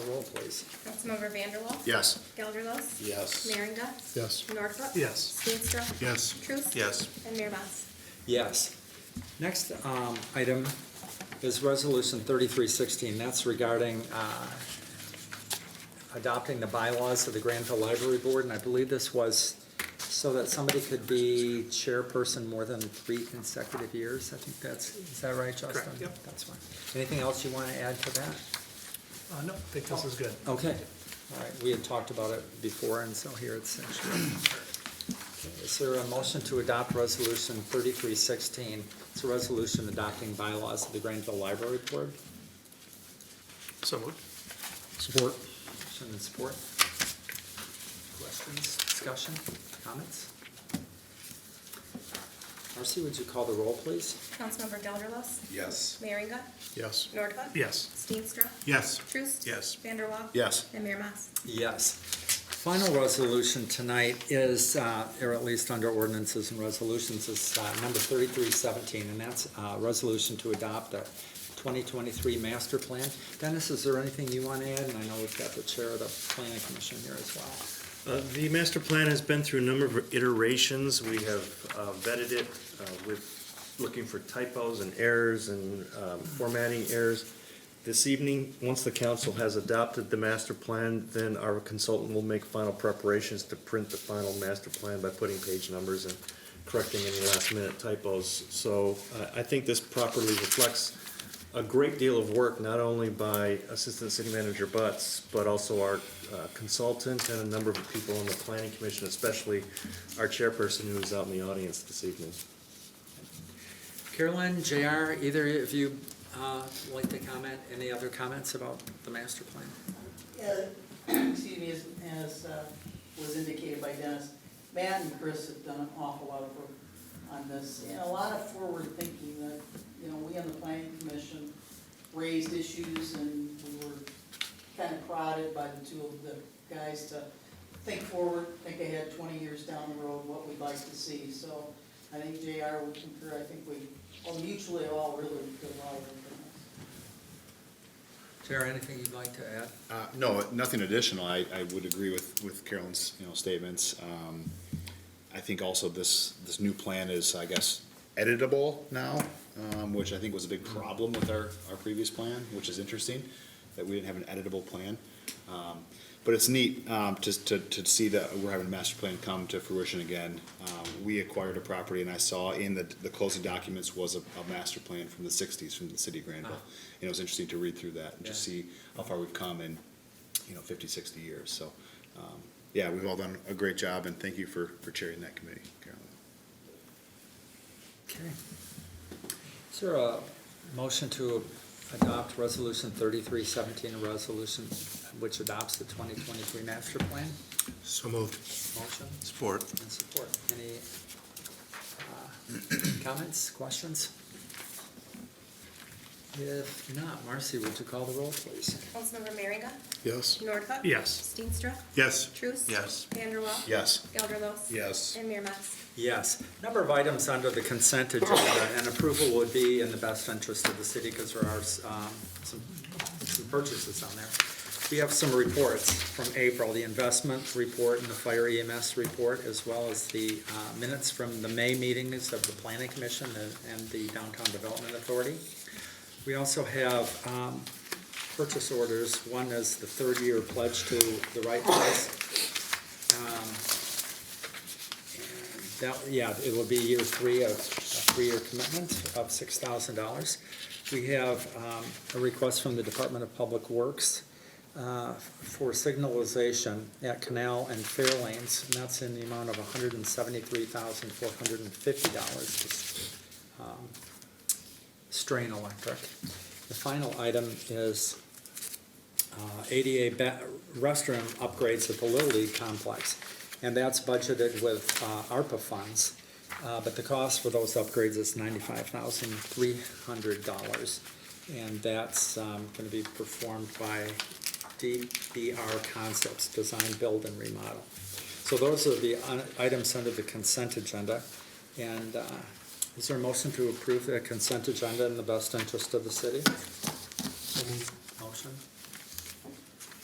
please. Councilmember Vanderwall. Yes. Gelderlos. Yes. Merringa. Yes. Norfelt. Yes. Steenstra. Yes. Truce. Yes. And Mayor Mas. Yes. Next um, item is Resolution 3316. That's regarding uh, adopting the bylaws of the Granville Library Board. And I believe this was so that somebody could be chairperson more than three consecutive years. I think that's, is that right, Justin? Correct, yep. That's fine. Anything else you want to add to that? Uh, no, I think this is good. Okay, all right, we had talked about it before, and so here it's. Okay, Is there a motion to adopt resolution thirty-three sixteen? It's a resolution adopting bylaws of the Granville Library Board. So moved. Support. Motion and support. Questions, discussion, comments? Marcy, would you call the roll, please? Councilmember Gelderlos. Yes. Meringa. Yes. Nordhook. Yes. Steenstra. Yes. Truce. Yes. Vanderwall. Yes. And Mayor Mas. Yes. Final resolution tonight is, uh, or at least under ordinances and resolutions, is uh, number 3317, and that's uh, a resolution to adopt a 2023 master plan. Dennis, is there anything you want to add? And I know we've got the chair of the planning commission here as well. Uh, The master plan has been through a number of iterations. We have uh, vetted it uh, with, looking for typos and errors and um, formatting errors. This evening, once the council has adopted the master plan, then our consultant will make final preparations to print the final master plan by putting page numbers and correcting any last-minute typos. So uh, I think this properly reflects a great deal of work, not only by Assistant City Manager Butts, but also our uh, consultant and a number of people on the Planning Commission, especially our chairperson who is out in the audience this evening. Carolyn, JR, either of you uh, like to comment? Any other comments about the master plan? Uh, excuse me, as, as uh, was indicated by Dennis, Matt and Chris have done an awful lot of work on this, and a lot of forward thinking that, you know, we on the planning commission raised issues and we were kind of prodded by the two of the guys to think forward, think ahead twenty years down the road, what we'd like to see, so I think JR would concur, I think we, all mutually all really did a lot of work on this. JR, anything you'd like to add? Uh, no, nothing additional. I, I would agree with, with Carolyn's, you know, statements. Um, I think also this, this new plan is, I guess, editable now, um, which I think was a big problem with our, our previous plan, which is interesting, that we didn't have an editable plan. Um, But it's neat, um, to, to, to see that we're having a master plan come to fruition again. Um, we acquired a property and I saw in the, the closing documents was a, a master plan from the sixties from the city of Granville. And it was interesting to read through that and just Yeah. see how far we've come in, you know, 50, 60 years. So, um, yeah, we've all done a great job, and thank you for, for chairing that committee, Carolyn. Okay. Is there a motion to adopt Resolution thirty-three seventeen, a resolution which adopts the twenty twenty-three master plan? So moved. Motion Support. and support. Any uh, comments, questions? If not, Marcy, would you call the roll, please? Councilmember Merringa. Yes. Nordhook. Yes. Steenstra. Yes. Truce. Yes. Vanderwall. Yes. Gelderlos. Yes. And Mayor Mas. Yes. Number of items under the consent agenda, and approval would be in the best interest of the city because there are um, some some purchases on there. We have some reports from April, the investment report and the fire EMS report, as well as the uh, minutes from the May meetings of the Planning Commission and- and the Downtown Development Authority. We also have um, purchase orders. One is the third-year pledge to the right place. Um, that, yeah, it will be year three of, a three-year commitment of six thousand dollars. We have, um, a request from the Department of Public Works, uh, for signalization at Canal and Fair Lanes, and that's in the amount of hundred and seventy-three thousand, four hundred and fifty dollars. Um, Strain Electric. The final item is, uh, ADA ba- restroom upgrades at the Little League complex. And that's budgeted with uh, ARPA funds, Uh, but the cost for those upgrades is ninety-five thousand three hundred dollars. And that's going to be performed by DBR Concepts, Design, Build, and Remodel. So those are the un- items under the consent agenda. And uh, is there a motion to approve the consent agenda in the best interest of the city? Motion?